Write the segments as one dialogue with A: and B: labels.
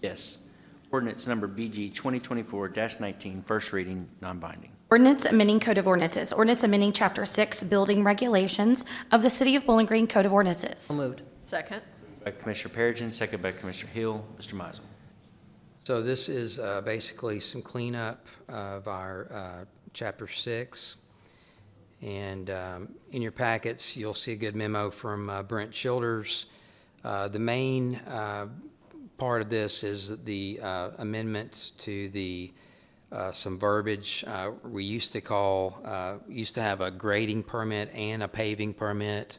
A: Yes. Ordinance number BG 2024-19, first reading, non-binding.
B: Ordinance amending Code of Ordinances. Ordinance amending Chapter 6 Building Regulations of the City of Bowling Green Code of Ordinances.
C: So moved.
D: Second.
A: By Commissioner Perigin, second by Commissioner Hill. Mr. Mizel.
E: So this is uh, basically some cleanup of our uh, Chapter 6. And um, in your packets, you'll see a good memo from uh, Brent Childers. Uh, The main uh, part of this is the uh, amendments to the, uh, some verbiage. Uh, We used to call, uh, used to have a grading permit and a paving permit.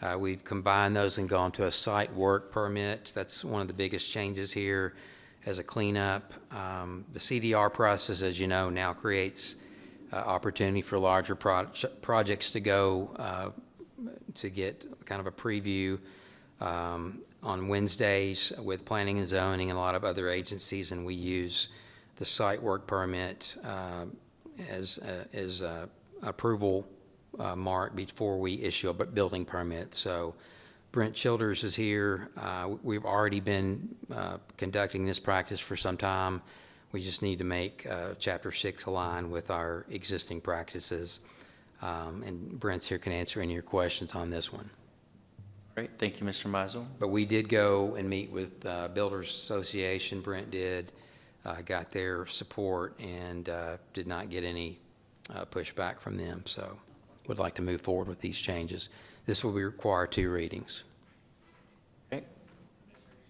E: Uh, We've combined those and gone to a site work permit. That's one of the biggest changes here as a cleanup. Um, The CDR process, as you know, now creates uh, opportunity for larger proj- projects to go uh, to get kind of a preview um, on Wednesdays with planning and zoning and a lot of other agencies, and we use the site work permit uh, as, uh, as uh, approval uh, mark before we issue a bu- building permit. So Brent Childers is here. Uh, We've already been uh, conducting this practice for some time. We just need to make uh, Chapter 6 align with our existing practices. Um, And Brent's here can answer any of your questions on this one.
A: Great, thank you, Mr. Mizel.
E: But we did go and meet with uh, Builders Association, Brent did, uh, got their support, and uh, did not get any uh, pushback from them, so would like to move forward with these changes. This will require two readings.
A: Okay. Do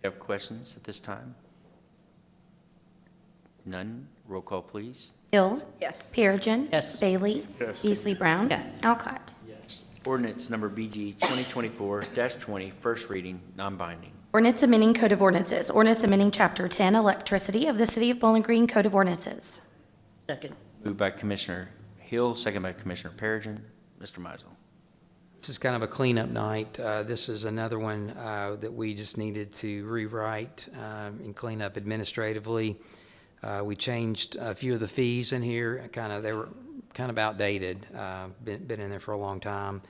A: you have questions at this time? None? Roll call, please.
B: Hill.
D: Yes.
B: Perigin.
C: Yes.
B: Bailey. Yes. Beasley Brown.
C: Yes.
B: Alcott.
A: Yes. Ordinance number BG 2024-20, first reading, non-binding.
B: Ordinance amending Code of Ordinances. Ordinance amending Chapter 10 Electricity of the City of Bowling Green Code of Ordinances.
C: Second.
A: Moved by Commissioner Hill, second by Commissioner Perigin. Mr. Mizel.
E: This is kind of a cleanup night. Uh, This is another one uh, that we just needed to rewrite um, and clean up administratively. Uh, We changed a few of the fees in here, kind of, they were kind of outdated, uh, been been in there for a long time.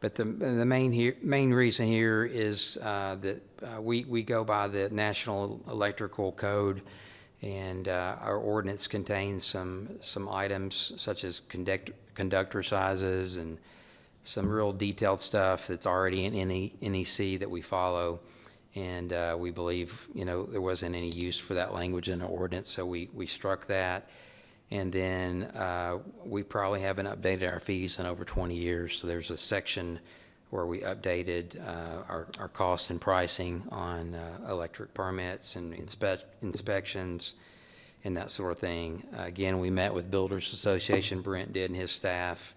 E: But the the main here, main reason here is uh, that uh, we we go by the National Electrical Code, and uh, our ordinance contains some some items such as conduct- conductor sizes and some real detailed stuff that's already in E, NE NEC that we follow. And uh, we believe, you know, there wasn't any use for that language in the ordinance, so we, we struck that. And then uh, we probably haven't updated our fees in over 20 years. So there's a section where we updated uh, our, our cost and pricing on uh, electric permits and inspec- inspections and that sort of thing. Again, we met with Builders Association, Brent did and his staff,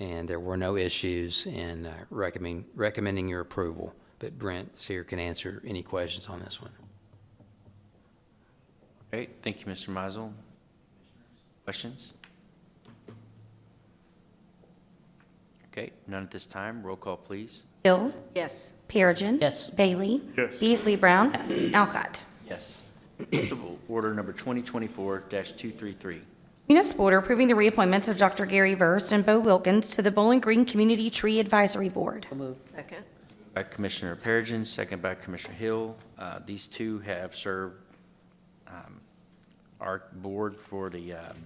E: and there were no issues in uh, recommending, recommending your approval. But Brent's here can answer any questions on this one.
A: Great, thank you, Mr. Mizel. Questions? Okay, none at this time. Roll call, please.
B: Hill.
D: Yes.
B: Perigin.
C: Yes.
B: Bailey. Yes. Beasley Brown. Yes. Alcott.
A: Yes. Municipal Order number 2024-233.
B: Municipal order approving the reappointments of Dr. Gary Verst and Bo Wilkins to the Bowling Green Community Tree Advisory Board.
C: So moved.
D: Second.
A: By Commissioner Perigin, second by Commissioner Hill. Uh, These two have served um, our board for the um,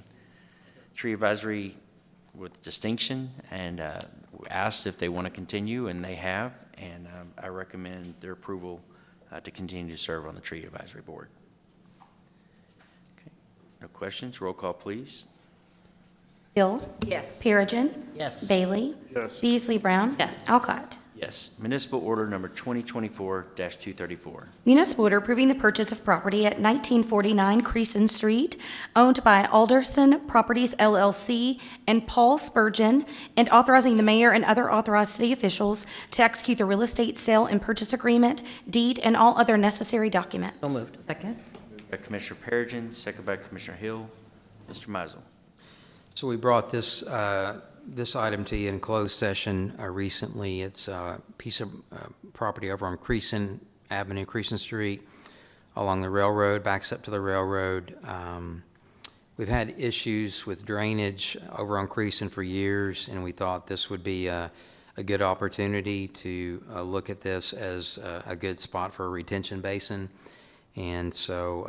A: tree advisory with distinction, and uh, asked if they want to continue, and they have, and um, I recommend their approval uh, to continue to serve on the tree advisory board. Okay. No questions? Roll call, please.
B: Hill.
D: Yes.
B: Perigin.
C: Yes.
B: Bailey. Yes. Beasley Brown.
C: Yes.
B: Alcott.
A: Yes. Municipal Order Number 2024-234.
B: Municipal order approving the purchase of property at 1949 Creason Street, owned by Alderson Properties LLC and Paul Spurgeon, and authorizing the mayor and other authorized city officials to execute the real estate sale and purchase agreement, deed, and all other necessary documents.
C: So moved. Second.
A: By Commissioner Perigin, second by Commissioner Hill. Mr. Mizel.
E: So we brought this, uh, this item to you in closed session uh, recently. It's a piece of uh, property over on Creason Avenue, Creason Street, along the railroad, backs up to the railroad. Um, We've had issues with drainage over on Creason for years, and we thought this would be a, a good opportunity to uh, look at this as a, a good spot for a retention basin. And so